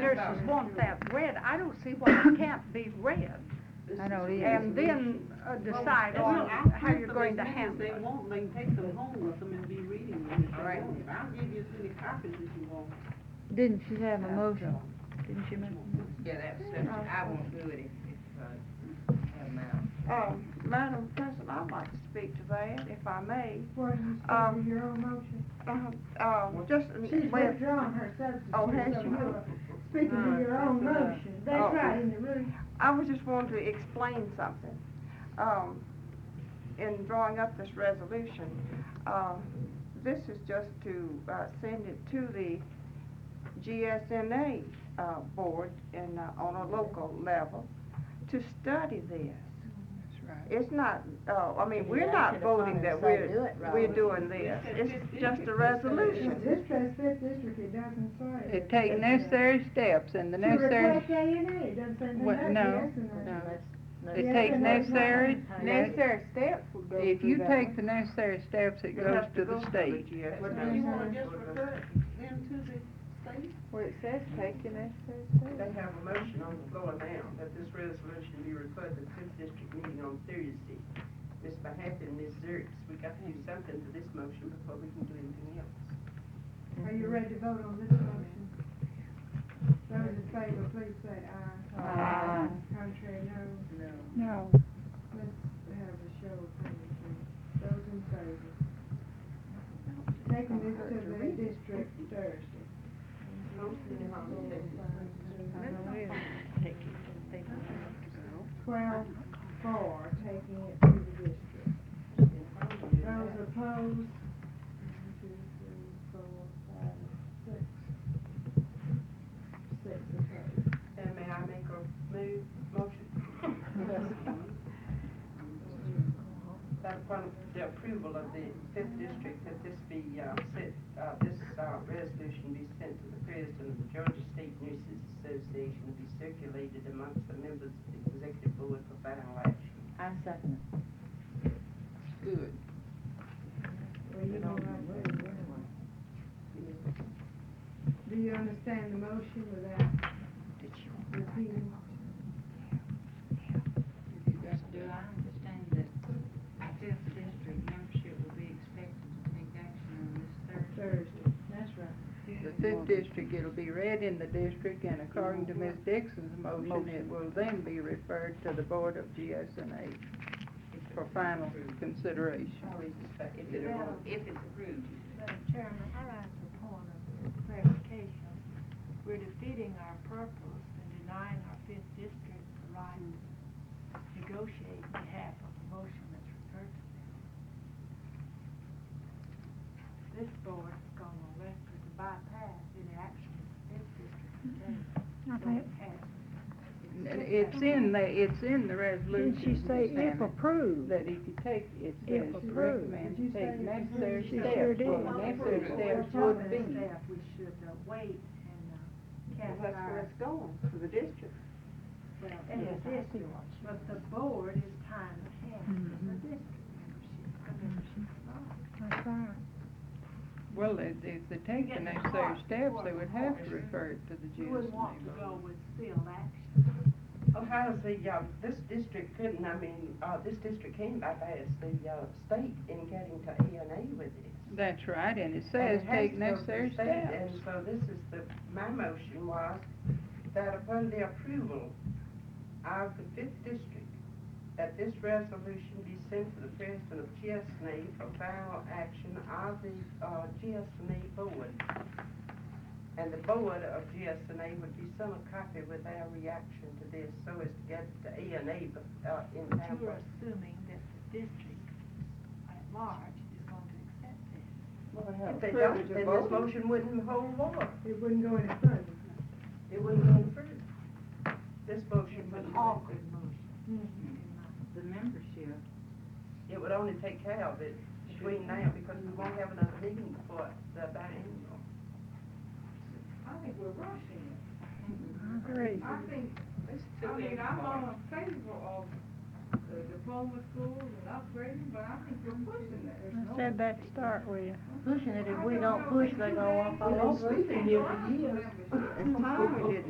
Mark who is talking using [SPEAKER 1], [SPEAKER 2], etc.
[SPEAKER 1] nurses want that read, I don't see why it can't be read.
[SPEAKER 2] I know it is.
[SPEAKER 1] And then uh, decide
[SPEAKER 3] Well,
[SPEAKER 1] on
[SPEAKER 3] no, I'll
[SPEAKER 1] how
[SPEAKER 3] print
[SPEAKER 1] you're
[SPEAKER 3] them
[SPEAKER 1] going to
[SPEAKER 3] as many as
[SPEAKER 1] handle
[SPEAKER 3] They
[SPEAKER 1] it.
[SPEAKER 3] want, they can take them home with them and be reading them if they
[SPEAKER 1] Right.
[SPEAKER 3] want. it. I'll give you as many copies as you want.
[SPEAKER 2] Didn't she have a motion? Didn't she make?
[SPEAKER 4] Yeah, that's, that's, I won't do it if, if, uh, have mine.
[SPEAKER 5] Um, Madam President, I'd like to speak to that, if I may. Um,
[SPEAKER 6] your own motion?
[SPEAKER 5] Uh, Um, just,
[SPEAKER 6] She's
[SPEAKER 5] well,
[SPEAKER 6] withdrawn her substitute.
[SPEAKER 5] Oh, has
[SPEAKER 6] so
[SPEAKER 5] she?
[SPEAKER 6] you are Speaking to your own motion,
[SPEAKER 5] Oh.
[SPEAKER 6] that's right, in the room.
[SPEAKER 5] I was just wanting to explain something. Um, in drawing up this resolution, um, this is just to, uh, send it to the GSNA, uh, board and, uh, on a local level to study this. It's not, uh, I mean, we're not voting that we're, we're doing this. It's just a
[SPEAKER 6] But
[SPEAKER 5] resolution.
[SPEAKER 6] This Trust Fifth District, it doesn't say.
[SPEAKER 2] It take necessary steps and the necessary,
[SPEAKER 6] To reflect A and A, it doesn't say
[SPEAKER 2] What-
[SPEAKER 6] nothing
[SPEAKER 2] no,
[SPEAKER 6] else in there.
[SPEAKER 2] it take necessary.
[SPEAKER 5] steps would go
[SPEAKER 2] If you take the necessary steps, it goes to the state.
[SPEAKER 3] But do you wanna just refer them to the state?
[SPEAKER 5] Well, it says take the necessary steps.
[SPEAKER 3] They have a motion on the floor now that this resolution be referred to the fifth district meeting on Thursday. Ms. Mahaffey and Ms. Zerkes, we got to do something to this motion before we can do anything else.
[SPEAKER 6] Are you ready to vote on this motion? Those in favor, please say aye.
[SPEAKER 2] Aye.
[SPEAKER 6] Contrary, no.
[SPEAKER 2] No.
[SPEAKER 6] Let's have a show of hands, please. Those in favor. Taking this to the district Thursday. Twelve, four, taking it to the district. Those opposed? One, two, three, four, five, six. Six opposed.
[SPEAKER 3] And may I make a move, motion? That upon the approval of the fifth district, that this be, uh, sent, uh, this, uh, resolution be sent to the president of the Georgia State Nurses Association, and be circulated amongst the members of the executive board for final action.
[SPEAKER 4] I second it. Good.
[SPEAKER 6] Well, you don't like that, anyway. Do you understand the motion without repeating?
[SPEAKER 4] Do I understand that fifth district membership will be expected to take action on this Thursday?
[SPEAKER 6] Thursday, that's right.
[SPEAKER 2] The fifth district, it'll be read in the district, and according to Ms. Dixon's motion, it will then be referred to the Board of GSNA for final consideration.
[SPEAKER 4] If it, if it's approved.
[SPEAKER 7] Madam Chairman, I rise to the point of clarification. We're defeating our purpose and denying our fifth district the right to negotiate on behalf of the motion that's referred to them. This board has gone on record to bypass any action the fifth district has taken.
[SPEAKER 8] Mm-hmm.
[SPEAKER 2] And It's in the, it's in the resolution.
[SPEAKER 8] Didn't she say
[SPEAKER 2] Ms.
[SPEAKER 8] if
[SPEAKER 2] Hammond,
[SPEAKER 8] approved?
[SPEAKER 2] That if you take, it
[SPEAKER 8] If
[SPEAKER 2] says
[SPEAKER 8] approved.
[SPEAKER 2] recommend
[SPEAKER 6] Did you
[SPEAKER 2] take
[SPEAKER 6] say
[SPEAKER 2] necessary
[SPEAKER 6] approved?
[SPEAKER 2] steps.
[SPEAKER 6] She
[SPEAKER 8] sure did.
[SPEAKER 2] Well, necessary steps would be.
[SPEAKER 7] Staff, we should uh, wait and uh,
[SPEAKER 5] That's
[SPEAKER 7] cast
[SPEAKER 5] where
[SPEAKER 7] our,
[SPEAKER 5] it's going, to the district.
[SPEAKER 7] well, yes, yes, but the board is tying the hands
[SPEAKER 6] Mm-hmm.
[SPEAKER 7] of the district membership, the membership law.
[SPEAKER 2] Well, if, if they take the
[SPEAKER 7] Yeah,
[SPEAKER 2] necessary
[SPEAKER 7] of
[SPEAKER 2] steps, they
[SPEAKER 7] course, of
[SPEAKER 2] would have to
[SPEAKER 7] course.
[SPEAKER 2] refer it to the
[SPEAKER 7] You wouldn't want to
[SPEAKER 2] GSNA.
[SPEAKER 7] go with still action.
[SPEAKER 3] Oh, how is the, uh, this district couldn't, I mean, uh, this district can bypass the, uh, state in getting to A and A with it.
[SPEAKER 2] That's right, and it
[SPEAKER 3] And
[SPEAKER 2] says
[SPEAKER 3] it has
[SPEAKER 2] take
[SPEAKER 3] to go to the
[SPEAKER 2] necessary
[SPEAKER 3] state,
[SPEAKER 2] steps.
[SPEAKER 3] And so this is the, my motion was that upon the approval of the fifth district, that this resolution be sent to the president of GSNA E for final action of the, uh, GSNA board. And the board of GSNA E would be sent a copy with their reaction to this, so as to get the A and A, but, uh, in time.
[SPEAKER 7] But
[SPEAKER 3] for-
[SPEAKER 7] you're assuming that the district at large is going to accept this.
[SPEAKER 3] If they don't, then this motion wouldn't hold water.
[SPEAKER 6] It wouldn't go any further.
[SPEAKER 3] It wouldn't go any further. This motion
[SPEAKER 7] It's
[SPEAKER 3] would
[SPEAKER 7] an awkward motion.
[SPEAKER 4] The membership
[SPEAKER 3] It would only take care of it between now, because we won't have another meeting before the biennial.
[SPEAKER 5] I think we're rushing it.
[SPEAKER 2] Great.
[SPEAKER 5] I think, I mean, I'm all in favor of the diploma schools and upgrading, but I think we're pushing it.
[SPEAKER 8] I said that to start with.
[SPEAKER 4] pushing it, if we don't push, they go off all over.
[SPEAKER 3] sleeping here for years.
[SPEAKER 2] It's time we did